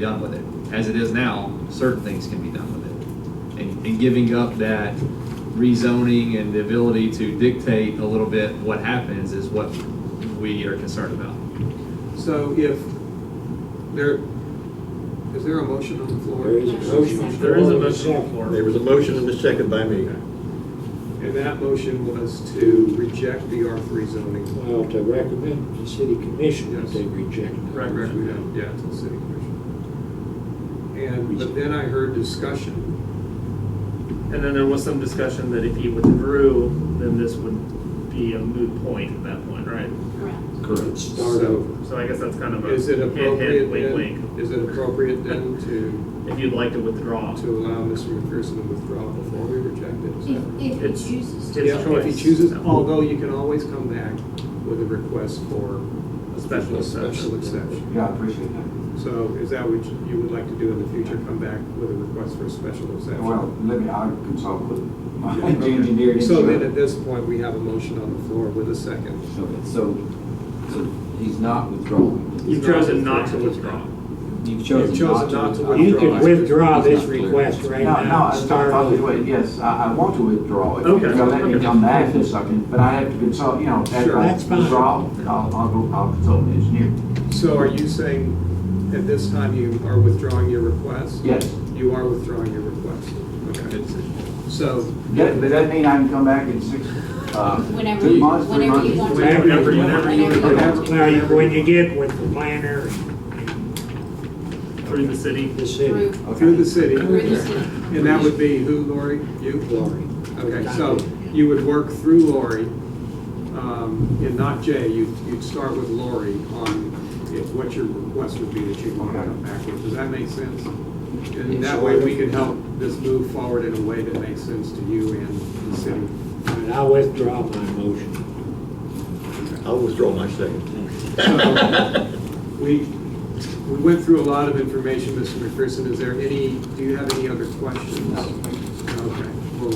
done with it. As it is now, certain things can be done with it. And, and giving up that rezoning and the ability to dictate a little bit what happens is what we are concerned about. So if there, is there a motion on the floor? There is a motion. There is a motion on the floor. There was a motion and a second by me. And that motion was to reject the R3 zoning. Well, uh, to recommend to the city commission that Yes. they reject. it. Correct, correct, we don't, yeah, to the city commission. And, but then I heard discussion. And then there was some discussion that if you withdrew, then this would be a moot point at that point, right? Correct. Correct. Start So- over. So I guess that's kind of a Is it hint, appropriate hint, wink, then, wink. is it appropriate then to, If you'd like to withdraw. to allow Mr. McPherson to withdraw before we reject it? Is that- If, if It's- he chooses to. his Yeah, If he choice. chooses, although you can always come back with a request for A special a special exception. exception. Yeah, I appreciate that. So is that what you would like to do in the future, come back with a request for a special exception? Well, let me, I'll consult with my Yeah, okay. engineer. and So then see. at this point, we have a motion on the floor with a second. Okay, So, so he's not withdrawing. You've chosen not to withdraw. You've You've chosen not to You withdraw. can withdraw this request right No, no, now. I- Start I- I'll do over. it, yes, I, I want to withdraw it. Okay, So let me okay. come back in a second, but I have to consult, you know, after Sure. I That's fine. withdraw, I'll, I'll go, I'll consult the engineer. So are you saying at this time you are withdrawing your request? Yes. You are withdrawing your request. Okay. So, That, but that mean I can come back in six, uh, Whenever two you- months, three whenever you months? want to. Whenever you- Whenever you whenever you want. want Now, you- when you get with the planner Through the city. and the city. Through, Okay. through the city. through the city. And that would be who, Lori? You? Lori. Okay, so you would work through Lori, um, and not Jay, you'd, you'd start with Lori on if- what your request would be that you want to come back with. Does that make sense? And that way we can help this move forward in a way that makes sense to you and the city. And I withdraw my motion. I'll withdraw my second. So, We, we went through a lot of information, Mr. McPherson. Is there any, do you have any other questions? Okay, well,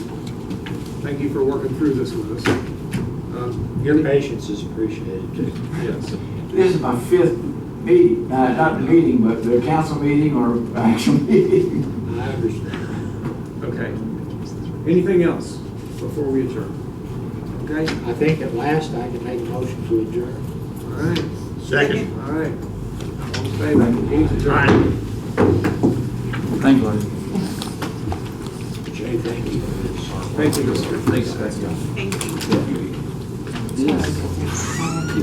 thank you for working through this with us. Um, Your patience is appreciated too. Yes. This is my fifth meeting, uh, not the meeting, but the council meeting or actual meeting. I understand. Okay. Anything else before we adjourn? Okay, I think at last I can make a motion to adjourn. all right, Second. all right. All in favor? Meeting's adjourned. Right. Thank you. Jay, thank you for this. Thank you, Mr. Thanks, guys. Thank you. Yes.